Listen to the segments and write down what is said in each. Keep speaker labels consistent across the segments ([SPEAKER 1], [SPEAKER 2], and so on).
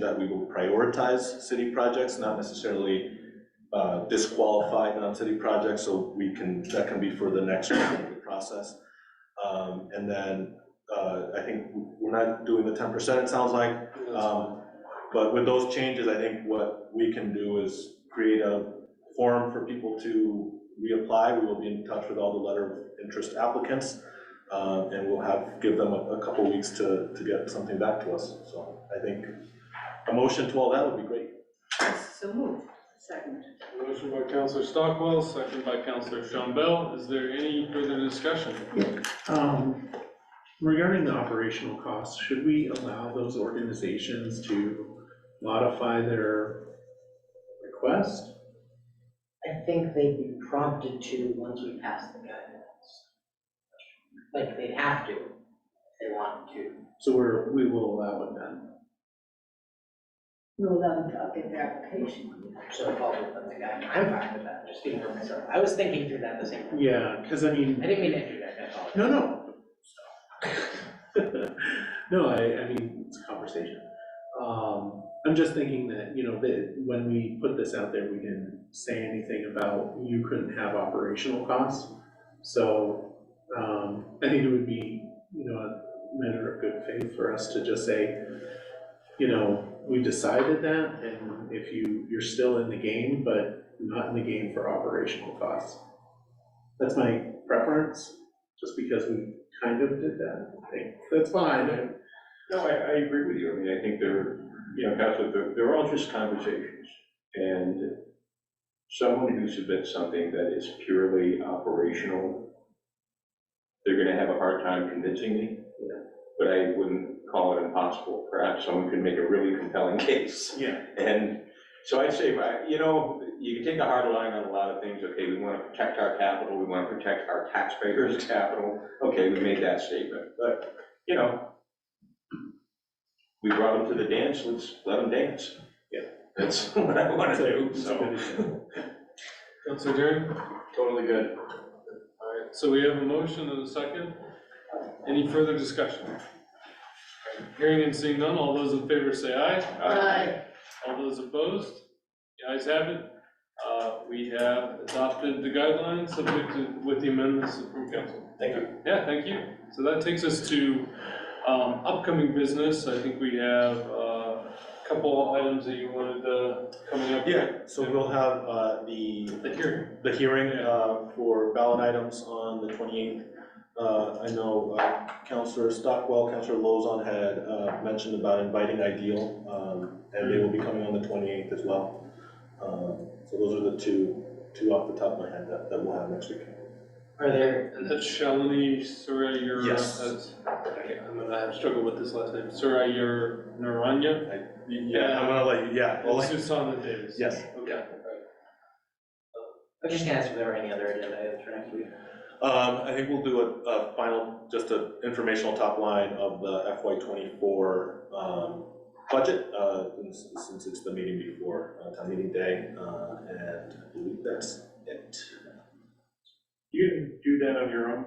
[SPEAKER 1] that we will prioritize city projects, not necessarily uh, disqualify non-city projects, so we can, that can be for the next round of the process. Um, And then, uh, I think we're not doing the ten percent, it sounds like. Um, But with those changes, I think what we can do is create a forum for people to reapply. We will be in touch with all the letter of interest applicants, uh, and we'll have, give them a a couple weeks to, to get something back to us. So I think a motion to all that would be great.
[SPEAKER 2] So moved, second.
[SPEAKER 3] Motion by Counselor Stockwell, second by Counselor Shumbell. Is there any further discussion?
[SPEAKER 4] Um, Regarding the operational costs, should we allow those organizations to modify their request?
[SPEAKER 5] I think they'd be prompted to once we pass the guidelines. Like, they'd have to, if they wanted to.
[SPEAKER 4] So we're, we will allow it then.
[SPEAKER 2] We'll allow them to update their application.
[SPEAKER 5] So it falls within the guidelines. I'm fine with that, just speaking for myself. I was thinking through that this evening.
[SPEAKER 4] Yeah, because I mean,
[SPEAKER 5] I didn't mean to interject, I apologize.
[SPEAKER 4] no, no. No, I, I mean, it's a conversation. Um, I'm just thinking that, you know, that when we put this out there, we didn't say anything about you couldn't have operational costs. So, um, I think it would be, you know, a matter of good faith for us to just say, you know, we decided that, and if you, you're still in the game, but not in the game for operational costs. That's my preference, just because we kind of did that, I think, that's fine, I-
[SPEAKER 6] No, I, I agree with you. I mean, I think they're, you know, Counselor, they're, they're all just conversations. And someone who submits something that is purely operational, they're gonna have a hard time convincing me. But I wouldn't call it impossible. Perhaps someone could make a really compelling case.
[SPEAKER 4] Yeah.
[SPEAKER 6] And so I'd say, I- you know, you can take a hard line on a lot of things. Okay, we want to protect our capital, we want to protect our taxpayers' capital. Okay, we made that statement, but, you know, we brought them to the dance, let's let them dance.
[SPEAKER 4] Yeah.
[SPEAKER 6] That's what I want to do,
[SPEAKER 4] It's a
[SPEAKER 6] so.
[SPEAKER 4] good example.
[SPEAKER 3] Counselor Derry?
[SPEAKER 6] uh, Totally good.
[SPEAKER 3] All right, so we have a motion and a second. Any further discussion? Hearing and seeing none, all those in favor say aye.
[SPEAKER 6] uh,
[SPEAKER 3] All those opposed? The ayes have it. Uh, We have adopted the guidelines subject to, with the amendments from council.
[SPEAKER 1] Thank you.
[SPEAKER 3] Yeah, thank you. So that takes us to um, upcoming business. I think we have uh, a couple items that you wanted uh, coming up.
[SPEAKER 1] Yeah, so we'll have uh, the
[SPEAKER 3] The hearing.
[SPEAKER 1] the hearing uh, for ballot items on the 28th. Uh, I know uh, Counselor Stockwell, Counselor Lozon had uh, mentioned about inviting Ideal, um, and they will be coming on the 28th as well. Um, So those are the two, two off the top of my head that, that we'll have next week.
[SPEAKER 5] Are there,
[SPEAKER 3] And that's Shalini Surayur.
[SPEAKER 1] Yes.
[SPEAKER 3] that's- okay, I'm gonna have struggled with this last name, Surayur Naranya?
[SPEAKER 1] I'm gonna let you, yeah, I'll let-
[SPEAKER 3] Susana Davis.
[SPEAKER 1] yes.
[SPEAKER 3] Okay. alright.
[SPEAKER 5] I'm just gonna ask if there are any other agenda items for next week.
[SPEAKER 1] Um, I think we'll do a, a final, just a informational top line of the FY twenty-four, um, budget, uh, since, since it's the meeting before, uh, town meeting day, uh, and I believe that's it.
[SPEAKER 6] You do that on your own?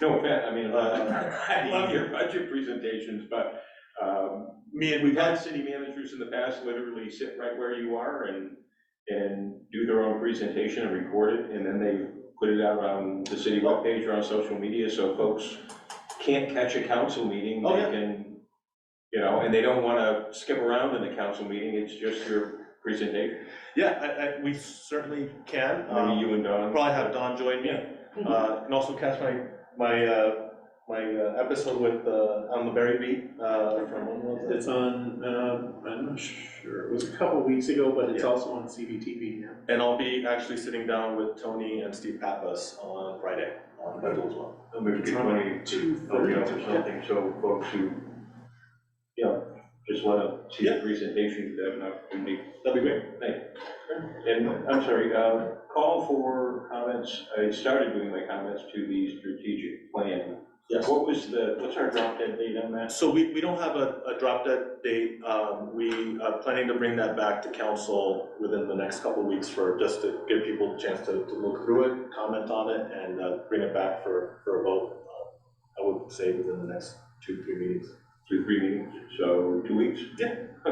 [SPEAKER 6] No offense, I mean,
[SPEAKER 1] Uh,
[SPEAKER 6] I love your budget presentations, but, um, man, we've had city managers in the past literally sit right where you are and, and do their own presentation and record it, and then they put it out on the city webpage or on social media, so folks can't catch a council meeting,
[SPEAKER 1] Oh,
[SPEAKER 6] they
[SPEAKER 1] yeah.
[SPEAKER 6] can, you know, and they don't wanna skip around in the council meeting, it's just your presentation,
[SPEAKER 1] Yeah, I, I, we certainly can,
[SPEAKER 6] maybe
[SPEAKER 1] um,
[SPEAKER 6] you and Don.
[SPEAKER 1] probably have Don join me, uh, and also catch my, my, uh, my uh, episode with, uh, on the Berry Beat, uh, from when was it?
[SPEAKER 4] It's on, um, I'm not sure, it was a couple weeks ago, but it's
[SPEAKER 1] Yeah.
[SPEAKER 4] also on CBTV now.
[SPEAKER 1] And I'll be actually sitting down with Tony and Steve Pappas on Friday, on Bedell as well.
[SPEAKER 6] And we could get money
[SPEAKER 4] Two
[SPEAKER 6] to, you know,
[SPEAKER 4] thirty.
[SPEAKER 6] or something, so folks who, you know, just wanna see the presentation, that an opportunity.
[SPEAKER 1] That'd be great.
[SPEAKER 6] And I'm sorry, uh, call for comments, I started doing my comments to the strategic plan.
[SPEAKER 1] Yes.
[SPEAKER 6] What was the, what's our drop dead date on that?
[SPEAKER 1] So we, we don't have a, a drop dead date. Um, we are planning to bring that back to council within the next couple of weeks for, just to give people a chance to, to look through it, comment on it, and, uh, bring it back for, for a vote. uh, I would say within the next two, three meetings.
[SPEAKER 6] Two, three meetings, so two weeks?